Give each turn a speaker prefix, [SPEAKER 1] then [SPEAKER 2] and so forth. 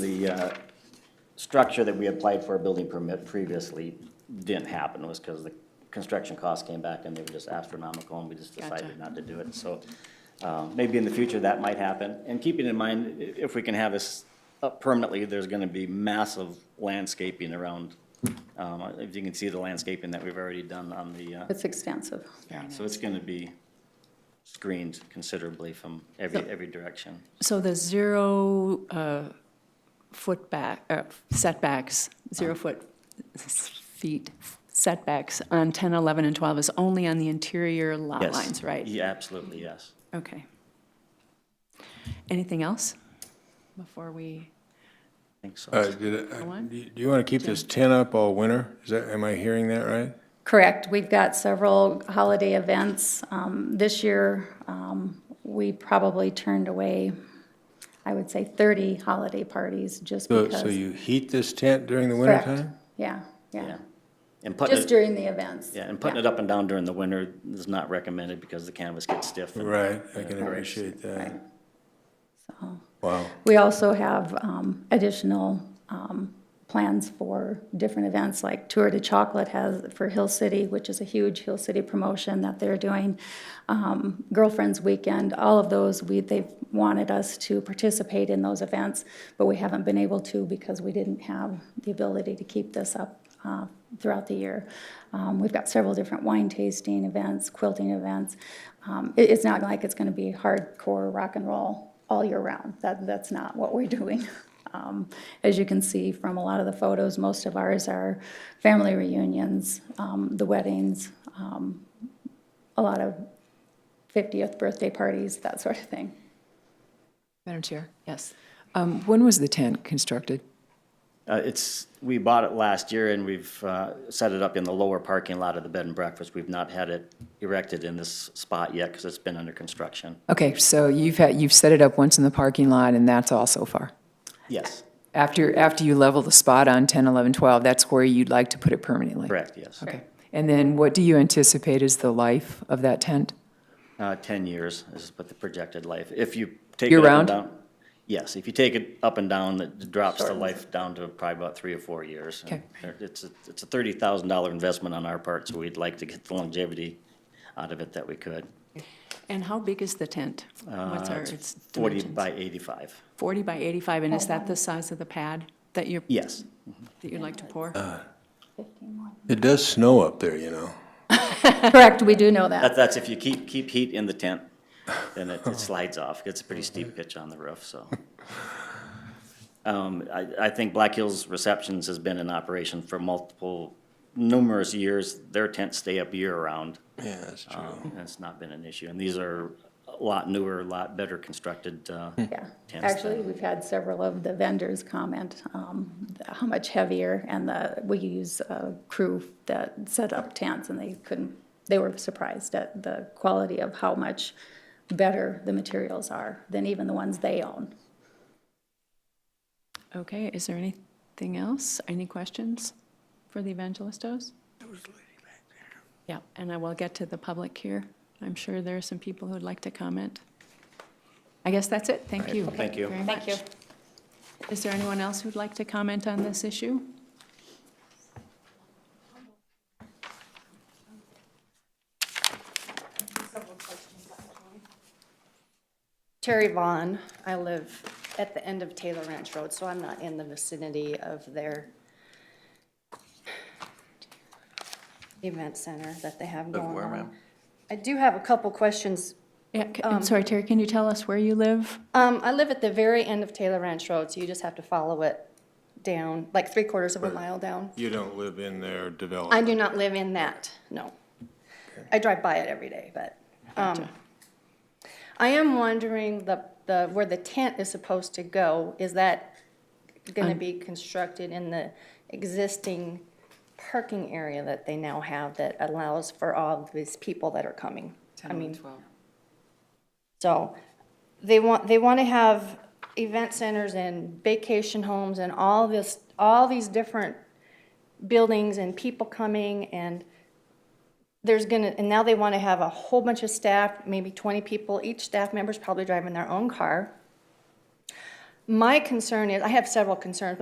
[SPEAKER 1] The uh, structure that we applied for a building permit previously didn't happen, was because the construction costs came back and they were just astronomical, and we just decided
[SPEAKER 2] Gotcha.
[SPEAKER 1] not to do it, so uh, maybe in the future that might happen. And keeping in mind, i- if we can have this up permanently, there's gonna be massive landscaping around. Um, If you can see the landscaping that we've already done on the, uh,
[SPEAKER 2] It's expansive.
[SPEAKER 1] yeah, so it's gonna be screened considerably from every, every direction.
[SPEAKER 2] So the zero uh, foot back, uh, setbacks, zero foot feet setbacks on 10, 11, and 12 is only on the interior lot
[SPEAKER 1] Yes.
[SPEAKER 2] lines, right?
[SPEAKER 1] Yeah, absolutely, yes.
[SPEAKER 2] Okay. Anything else before we,
[SPEAKER 1] I think so.
[SPEAKER 3] Uh, did I-
[SPEAKER 2] Go on.
[SPEAKER 3] Do you want to keep this tent up all winter? Is that, am I hearing that right?
[SPEAKER 4] Correct. We've got several holiday events. Um, This year, um, we probably turned away, I would say, 30 holiday parties just
[SPEAKER 3] So,
[SPEAKER 4] because.
[SPEAKER 3] so you heat this tent during the
[SPEAKER 4] Correct.
[SPEAKER 3] wintertime?
[SPEAKER 4] Yeah, yeah.
[SPEAKER 1] Yeah, and putting
[SPEAKER 4] Just
[SPEAKER 1] it,
[SPEAKER 4] during the events.
[SPEAKER 1] yeah, and putting it up and down during the winter is not recommended because the canvas gets stiff. and-
[SPEAKER 3] Right, I can appreciate that. Wow.
[SPEAKER 4] We also have um, additional um, plans for different events, like Tour de Chocolate has for Hill City, which is a huge Hill City promotion that they're doing. um, Girlfriends Weekend, all of those, we, they've wanted us to participate in those events, but we haven't been able to because we didn't have the ability to keep this up uh, throughout the year. Um, We've got several different wine tasting events, quilting events. Um, it- It's not like it's going to be hardcore rock and roll all year round. That, that's not what we're doing. Um, As you can see from a lot of the photos, most of ours are family reunions, um, the weddings, um, a lot of 50th birthday parties, that sort of thing.
[SPEAKER 5] Madam Chair,
[SPEAKER 2] yes?
[SPEAKER 5] um, when was the tent constructed?
[SPEAKER 1] Uh, it's, we bought it last year and we've, uh, set it up in the lower parking lot of the bed and breakfast. We've not had it erected in this spot yet because it's been under construction.
[SPEAKER 5] Okay, so you've had, you've set it up once in the parking lot, and that's all so far.
[SPEAKER 1] Yes,
[SPEAKER 5] After, after you level the spot on 10, 11, 12, that's where you'd like to put it permanently?
[SPEAKER 1] correct, yes.
[SPEAKER 5] Okay. And then what do you anticipate is the life of that tent?
[SPEAKER 1] Uh, ten years is what the projected life, if you take it up and
[SPEAKER 5] Year-round?
[SPEAKER 1] down. Yes, if you take it up and down, it drops the life down to probably about three or four years.
[SPEAKER 5] Okay.
[SPEAKER 1] It's, a- it's a thirty thousand dollar investment on our part, so we'd like to get the longevity out of it that we could.
[SPEAKER 2] And how big is the tent? What's
[SPEAKER 1] Uh,
[SPEAKER 2] our,
[SPEAKER 1] it's
[SPEAKER 2] its
[SPEAKER 1] Forty
[SPEAKER 2] dimensions?
[SPEAKER 1] by eighty-five.
[SPEAKER 2] 40 by 85, and is that the size of the pad that you're,
[SPEAKER 1] Yes.
[SPEAKER 2] that you'd like to pour?
[SPEAKER 3] It does snow up there, you know?
[SPEAKER 4] Correct, we do know
[SPEAKER 1] That,
[SPEAKER 4] that.
[SPEAKER 1] that's if you keep, keep heat in the tent, then it, it slides off. It's a pretty steep pitch on the roof, so. Um, I, I think Black Hills Receptions has been in operation for multiple, numerous years. Their tents stay up year-round.
[SPEAKER 3] Yeah, that's true.
[SPEAKER 1] Um, and it's not been an issue. And these are a lot newer, a lot better constructed, uh,
[SPEAKER 4] Yeah.
[SPEAKER 1] tents
[SPEAKER 4] Actually,
[SPEAKER 1] than-
[SPEAKER 4] we've had several of the vendors comment um, how much heavier, and the, we use a crew that set up tents, and they couldn't, they were surprised at the quality of how much better the materials are than even the ones they own.
[SPEAKER 2] Okay, is there anything else? Any questions for the evangelistos? Yeah, and I will get to the public here. I'm sure there are some people who'd like to comment. I guess that's it. Thank you.
[SPEAKER 1] Thank you.
[SPEAKER 2] very much. Is there anyone else who'd like to comment on this issue?
[SPEAKER 6] Terry Vaughn. I live at the end of Taylor Ranch Road, so I'm not in the vicinity of their event center that they have going on. I do have a couple questions.
[SPEAKER 2] Yeah, c-
[SPEAKER 1] Um,
[SPEAKER 2] I'm sorry, Terry, can you tell us where you live?
[SPEAKER 6] Um, I live at the very end of Taylor Ranch Road, so you just have to follow it down, like three quarters of a mile down.
[SPEAKER 3] You don't live in their
[SPEAKER 6] I
[SPEAKER 3] development?
[SPEAKER 6] do not live in that, no. I drive by it every day, but, um, I am wondering the, the, where the tent is supposed to go, is that gonna be constructed in the existing parking area that they now have that allows for all of these people that are coming? I mean, so they want, they want to have event centers and vacation homes and all this, all these different buildings and people coming and there's gonna, and now they want to have a whole bunch of staff, maybe 20 people. Each staff member's probably driving their own car. My concern is, I have several concerns,